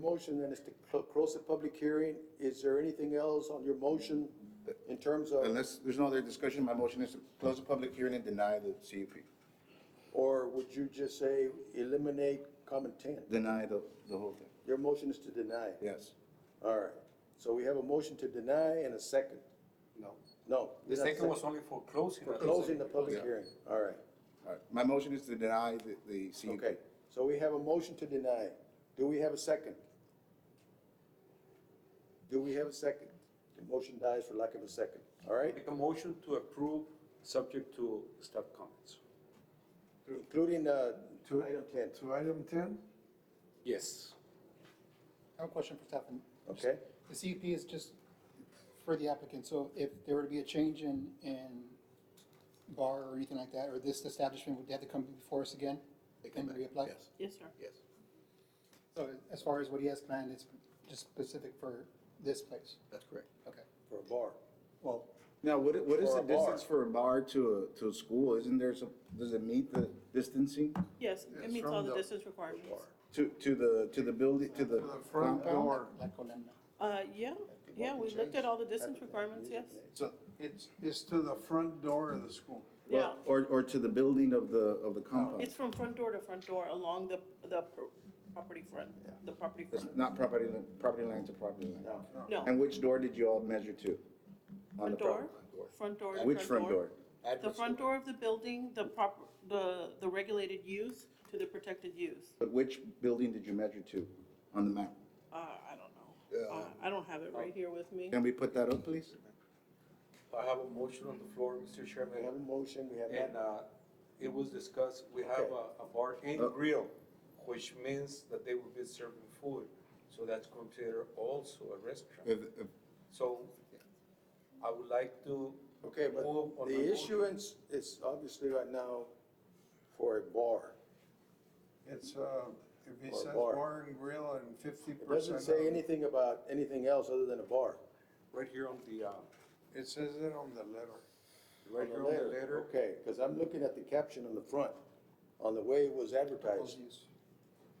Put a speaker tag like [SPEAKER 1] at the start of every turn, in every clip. [SPEAKER 1] Motion then is to clo- close the public hearing. Is there anything else on your motion in terms of,
[SPEAKER 2] Unless there's no other discussion, my motion is to close the public hearing and deny the CUP.
[SPEAKER 1] or would you just say eliminate comment ten?
[SPEAKER 2] Deny the, the whole thing.
[SPEAKER 1] Your motion is to deny.
[SPEAKER 2] Yes.
[SPEAKER 1] All right. So we have a motion to deny and a second.
[SPEAKER 3] No.
[SPEAKER 1] No.
[SPEAKER 3] The
[SPEAKER 1] not
[SPEAKER 3] second was only for closing.
[SPEAKER 1] For closing the public
[SPEAKER 2] Yeah.
[SPEAKER 1] hearing. All right.
[SPEAKER 2] All right. My motion is to deny the, the CUP.
[SPEAKER 1] Okay. So we have a motion to deny. Do we have a second? Do we have a second? The motion dies for lack of a second. All right?
[SPEAKER 3] Make a motion to approve, subject to staff comments.
[SPEAKER 1] Including, uh, item ten.
[SPEAKER 4] To item ten?
[SPEAKER 3] Yes.
[SPEAKER 5] I have a question for staff.
[SPEAKER 1] Okay.
[SPEAKER 5] The CUP is just for the applicant, so if there were to be a change in, in bar or anything like that, or this establishment, would they have to come before us again? And reapply?
[SPEAKER 6] Yes, sir.
[SPEAKER 5] So as far as what he has planned, it's just specific for this place?
[SPEAKER 7] That's correct.
[SPEAKER 5] Okay,
[SPEAKER 1] For a bar.
[SPEAKER 5] well,
[SPEAKER 2] Now, what, i- what is
[SPEAKER 1] For
[SPEAKER 2] the
[SPEAKER 1] a bar.
[SPEAKER 2] distance for a bar to a, to a school? Isn't there some, does it meet the distancing
[SPEAKER 6] Yes, it
[SPEAKER 4] Yes,
[SPEAKER 6] meets
[SPEAKER 4] from
[SPEAKER 6] all the
[SPEAKER 4] the-
[SPEAKER 6] distance requirements.
[SPEAKER 2] to, to the, to the building, to the
[SPEAKER 4] To the front
[SPEAKER 2] compound?
[SPEAKER 4] door.
[SPEAKER 5] like Columna.
[SPEAKER 6] Uh, yeah, yeah, we looked at all the distance requirements, yes.
[SPEAKER 4] So it's, it's to the front door of the school.
[SPEAKER 6] Yeah,
[SPEAKER 2] Or, or to the building of the, of the compound?
[SPEAKER 6] it's from front door to front door along the, the pro- property front, the property
[SPEAKER 2] It's
[SPEAKER 6] front.
[SPEAKER 2] not property, li- property line to property line.
[SPEAKER 1] No.
[SPEAKER 6] No,
[SPEAKER 2] And which door did you all measure to? On the
[SPEAKER 6] front door,
[SPEAKER 2] property-
[SPEAKER 6] front door. to
[SPEAKER 2] Which front door?
[SPEAKER 6] The front door of the building, the prop, the, the regulated use to the protected use.
[SPEAKER 2] But which building did you measure to on the map?
[SPEAKER 6] Uh, I don't know. Uh, I don't have it right here with me.
[SPEAKER 2] Can we put that up, please?
[SPEAKER 3] I have a motion on the floor,
[SPEAKER 1] We
[SPEAKER 3] Mr.
[SPEAKER 1] have a
[SPEAKER 3] Chairman,
[SPEAKER 1] motion, we have
[SPEAKER 3] and,
[SPEAKER 1] that.
[SPEAKER 3] uh, it was discussed, we have a, a bar and grill, which means that they will be serving food, so that's considered also a restaurant.
[SPEAKER 2] If- if-
[SPEAKER 3] So I would like to
[SPEAKER 1] uh, Okay, but
[SPEAKER 3] move on my
[SPEAKER 1] the
[SPEAKER 3] motion.
[SPEAKER 1] issuance is obviously right now for a bar.
[SPEAKER 4] It's, uh, if he
[SPEAKER 1] Or
[SPEAKER 4] says
[SPEAKER 1] bar.
[SPEAKER 4] bar and grill and fifty
[SPEAKER 1] It
[SPEAKER 4] percent.
[SPEAKER 1] doesn't say anything about anything else other than a bar.
[SPEAKER 3] Right here on the, uh,
[SPEAKER 4] It says it on the letter.
[SPEAKER 3] right here on the letter,
[SPEAKER 1] Okay, because I'm looking at the caption on the front, on the way it was advertised.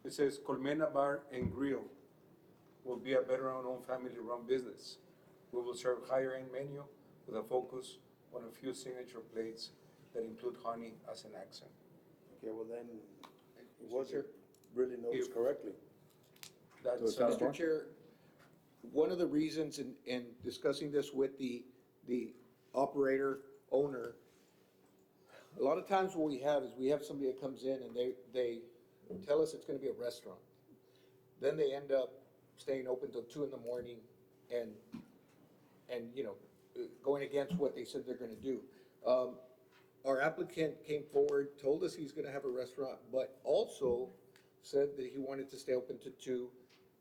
[SPEAKER 3] it says Colmena Bar and Grill will be a veteran-owned, family-run business. We will serve higher-end menu with a focus on a few signature plates that include honey as an accent.
[SPEAKER 1] Okay, well then, it wasn't really noticed
[SPEAKER 3] If-
[SPEAKER 1] correctly.
[SPEAKER 3] That's,
[SPEAKER 2] So it's not a
[SPEAKER 3] uh,
[SPEAKER 2] bar?
[SPEAKER 7] Mr. Chair, one of the reasons in, in discussing this with the, the operator, owner, a lot of times what we have is we have somebody that comes in and they, they tell us it's gonna be a restaurant. Then they end up staying open till two in the morning and, and, you know, uh, going against what they said they're gonna do. Um, our applicant came forward, told us he's gonna have a restaurant, but also said that he wanted to stay open to two.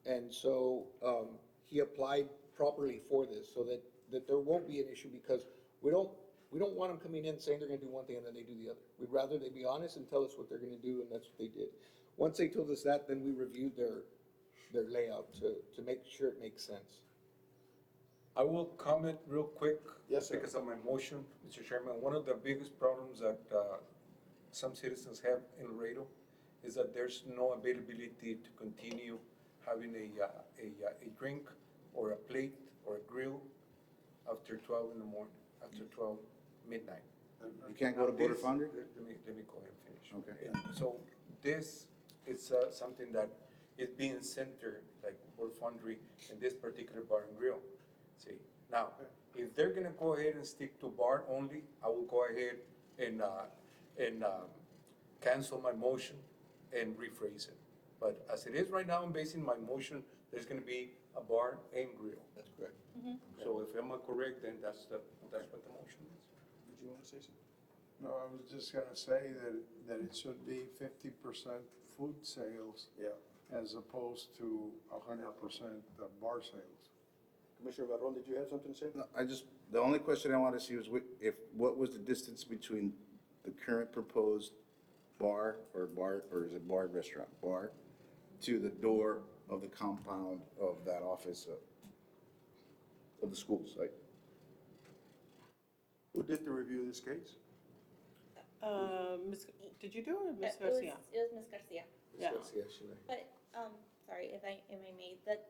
[SPEAKER 7] And so, um, he applied properly for this, so that, that there won't be an issue, because we don't, we don't want them coming in saying they're gonna do one thing and then they do the other. We'd rather they be honest and tell us what they're gonna do, and that's what they did. Once they told us that, then we reviewed their, their layout to, to make sure it makes sense.
[SPEAKER 3] I will comment real quick.
[SPEAKER 1] Yes, sir.
[SPEAKER 3] Because of my motion, Mr. Chairman, one of the biggest problems that, uh, some citizens have in Laredo is that there's no availability to continue having a, uh, a, uh, a drink or a plate or a grill after twelve in the morning, after twelve midnight.
[SPEAKER 2] You can't go to Border
[SPEAKER 3] This-
[SPEAKER 2] Foundry?
[SPEAKER 3] Let me, let me go ahead and finish.
[SPEAKER 2] Okay.
[SPEAKER 3] And So this is uh, something that is being centered, like World Foundry and this particular bar and grill. See, now, if they're gonna go ahead and stick to bar only, I will go ahead and, uh, and, um, cancel my motion and rephrase it. But as it is right now, I'm basing my motion, there's gonna be a bar and grill.
[SPEAKER 7] That's correct.
[SPEAKER 3] So if I'm correct, then that's the, that's what the motion is.
[SPEAKER 1] Did you want to say something?
[SPEAKER 4] No, I was just gonna say that, that it should be fifty percent food sales
[SPEAKER 1] Yeah.
[SPEAKER 4] as opposed to a hundred percent bar sales.
[SPEAKER 1] Commissioner Barron, did you have something to say?
[SPEAKER 2] No, I just, the only question I want to see was whi- if, what was the distance between the current proposed bar or bar, or is it bar restaurant, bar, to the door of the compound of that office of, of the school site?
[SPEAKER 1] Who did the review of this case?
[SPEAKER 6] Uh, Ms., did you do it, or Ms.
[SPEAKER 8] Uh, it was-
[SPEAKER 6] Garcia?
[SPEAKER 8] It was Ms. Garcia,
[SPEAKER 6] Yeah,
[SPEAKER 7] Yes, yes, you're right.
[SPEAKER 8] but, um, sorry if I, am I made, that